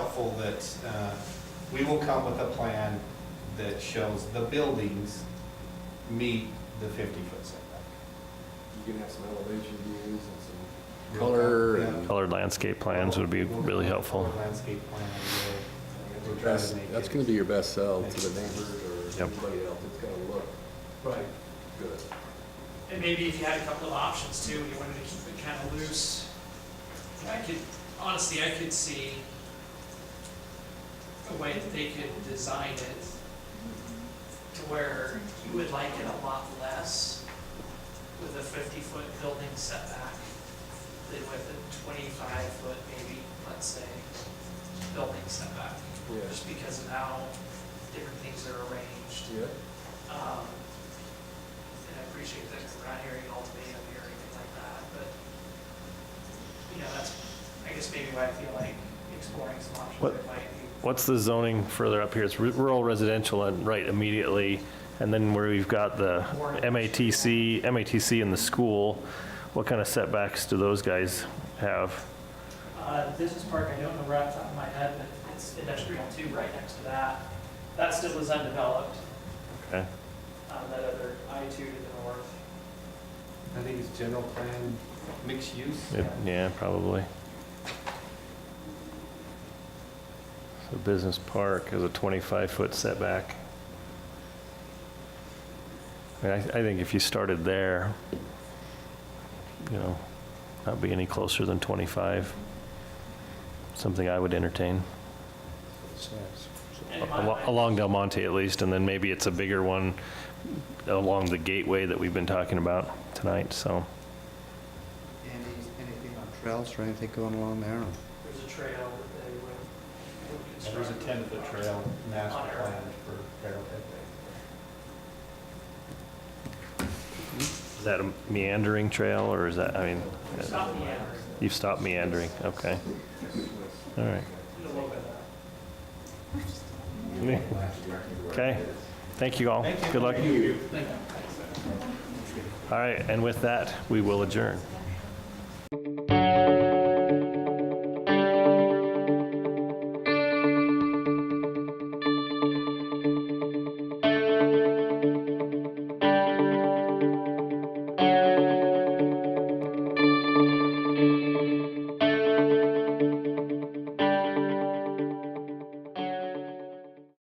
hopeful that uh, we will come with a plan that shows the buildings meet the 50-foot setback. You can have some elevation views and some, Color Yeah. and- Colored landscape plans would be We'll- really helpful. Landscape plan, we'll, we'll try That's, to make it. that's gonna be your best sell to the neighbors neighbors. or Yep. anybody else, it's gonna look Right. good. And maybe if you had a couple of options too, and you wanted to keep it kind of loose, I could, honestly, I could see a way that they could design it to where you would like it a lot less with a fifty-foot building setback than with a twenty-five foot maybe, let's say, building setback, Yes, just because of how different things are arranged. yeah, Um, And I appreciate that we're not hearing an ultimatum here or anything like that, but, you know, that's, I guess maybe why I feel like exploring some options What- that might be. What's the zoning further up here? It's ru- rural residential and right immediately, and then where we've got the MATC, MATC and the school, what kind of setbacks do those guys have? Uh, the business park, I don't know right off the top of my head, but it's industrial too, right next to that. That still is undeveloped, Okay, um, that other I two to the north. I think it's general plan, mixed use. It- yeah, probably. So business park is a 25-foot setback. I mean, I, I think if you started there, you know, not be any closer than 25, something I would entertain. And in my Al- mind- Along Del Monte at least, and then maybe it's a bigger one along the gateway that we've been talking about tonight, so. Any, anything on trails or anything going along there? There's a trail that they would- would. And There's a construct. 10-foot trail On master Arrow. plan for Arrowhead Bay. Is that a meandering trail, or is that, I mean, uh, It's not the average. you've stopped meandering, okay. All right, a little bit of that. okay, thank you all, Thank you. good luck. Thank you. All right, and with that, we will adjourn.